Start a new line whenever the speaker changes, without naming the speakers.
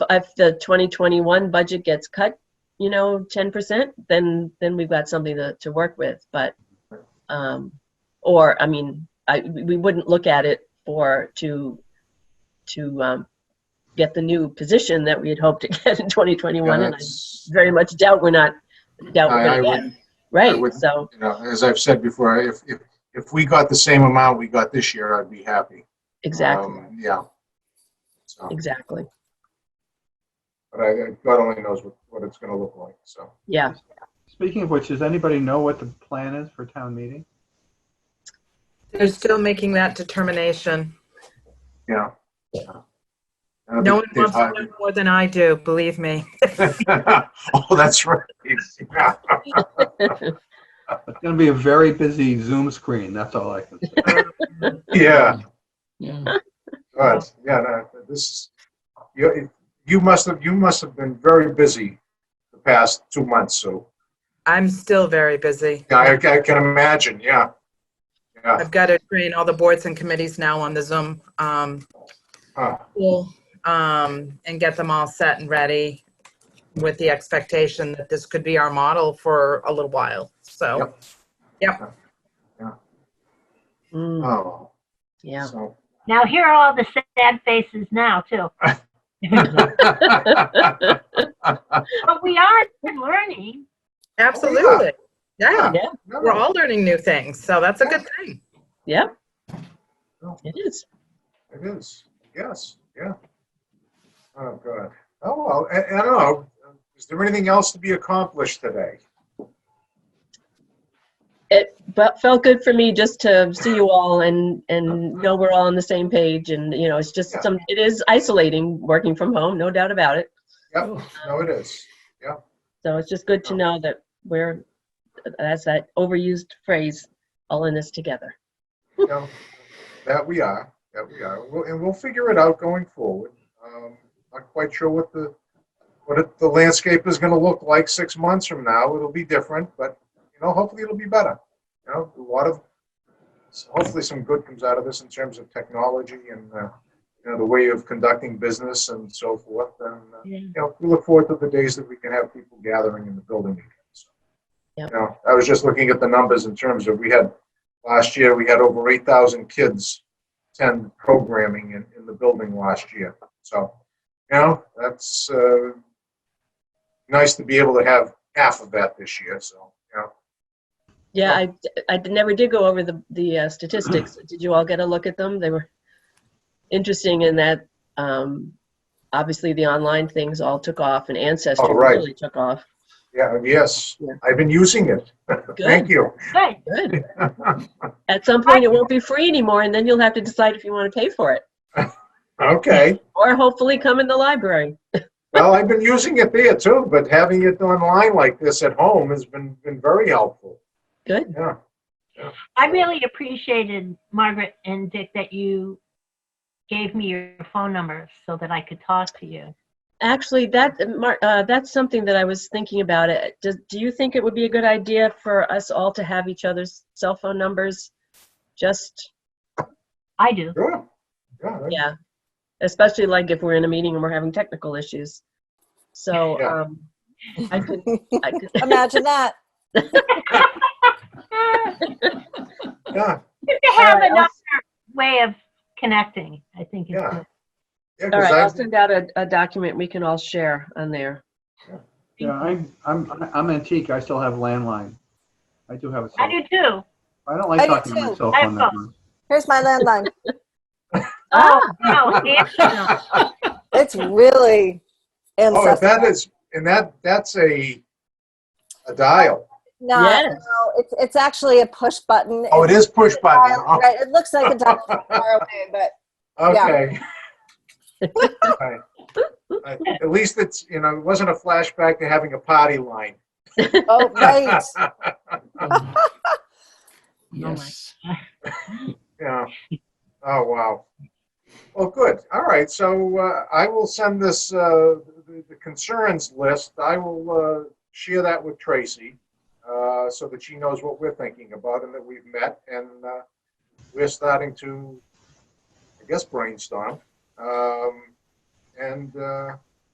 if the 2021 budget gets cut, you know, 10%, then, then we've got something to, to work with, but, um, or, I mean, I, we wouldn't look at it for, to, to, um, get the new position that we had hoped to get in 2021, and I
That's-
very much doubt we're not, doubt
I- I
we're gonna get,
wouldn't- I
right,
wouldn't-
so,
you know, As I've said before, if, if, if we got the same amount we got this year, I'd be happy.
exactly,
Um, Yeah. So,
exactly,
but I, I- God only knows what, what it's gonna look like, so.
yeah.
Speaking of which, does anybody know what the plan is for town meeting?
They're still making that determination.
Yeah. Yeah. That'll be-
No one
they've
wants to
hired-
know more than I do, believe me.
Oh, that's right. Yeah.
It's going to be a very busy Zoom screen. That's all I can say.
Yeah.
Yeah,
God, yeah, no, this is, you, you must have, you must have been very busy the past two months, so.
I'm still very busy.
Yeah, I, I can imagine, yeah. Yeah,
I've got to train all the boards and committees now on the Zoom um,
huh,
tool um, and get them all set and ready with the expectation that this could be our model for a little while. So, Hmm.
Mm,
oh,
Yeah,
so.
Now here are all the sad faces now too.
Uh,
But we are learning.
absolutely. Yeah,
yeah,
we're all learning new things. So that's a good thing.
yeah,
No,
it is,
It is, yes, yeah. Oh, God. Oh, well, I, I don't know, is there anything else to be accomplished today?
it but felt good for me just to see you all and and know we're all on the same page and you know it's just
Yeah.
some it is isolating working from home no doubt about it
Yep, no, it is.
so it's just good to know that we're that's that overused phrase all in this together
No, that we are, that we are, We'll- and we'll figure it out going forward. Um, Not quite sure what the, what it- the landscape is gonna look like six months from now, it'll be different, but, you know, hopefully it'll be better. You know, a lot of, hopefully some good comes out of this in terms of technology and, uh, you know, the way of conducting business and so forth, and, uh, you know, we look forward to the days that we can have people gathering in the building again. So, You
Yep.
know, I was just looking at the numbers in terms of, we had, last year, we had over eight thousand kids attend programming in, in the building last year. So, you know, that's, uh, nice to be able to have half of that this year, so, you know.
yeah i i never did go over the the uh, statistics did you all get a look at them they were interesting in that um obviously the online things all took off and ancestry
Oh, right.
really took off
Yeah, yes,
Yeah.
I've been using it. Thank you.
Good.
Good. At some point, it won't be free anymore, and then you'll have to decide if you want to pay for it,
Okay.
or hopefully come in the library.
Well, I've been using it there too, but having it online like this at home has been, been very helpful.
Good.
Yeah.
I really appreciated Margaret and Dick that you gave me your phone number so that I could talk to you.
Actually, that Mar- uh, that's something that I was thinking about. It. Does, do you think it would be a good idea for us all to have each other's cell phone numbers? Just
I do.
Sure. Yeah, that-
yeah, especially like if we're in a meeting and we're having technical issues. So
Yeah.
um, I could. I could
Imagine that.
Eh,
yeah,
Good to have
All right, I'll-
another way of connecting, I think. is
Yeah.
good.
yeah.
all right, I'll
'cause I've-
send out a, a document we can all share on there.
Yeah, I'm, I'm, I'm antique. I still have landline. I do have a
I
cell.
do too.
I don't like
I do
talking to
too.
myself
I
on that
have
one.
Here's my landline.
Ah.
Oh, no, Angela.
It's really
Oh, and that
ancestral.
is, and that, that's a, a dial.
No,
Yes.
no, it's, it's actually a push button.
Oh, it is push
It's a
button.
dial-
Oh,
Right, it looks like a dial from far away, but
Okay. Right. Right. At least it's, you know, it wasn't a flashback to having a potty line.
oh, right.
um, Yes.
Yeah. Oh, wow. Well, good. All right. So uh, I will send this, uh, the the concerns list, I will uh, share that with Tracy uh, so that she knows what we're thinking about and that we've met and uh, we're starting to, I guess, brainstorm. Um, And, uh,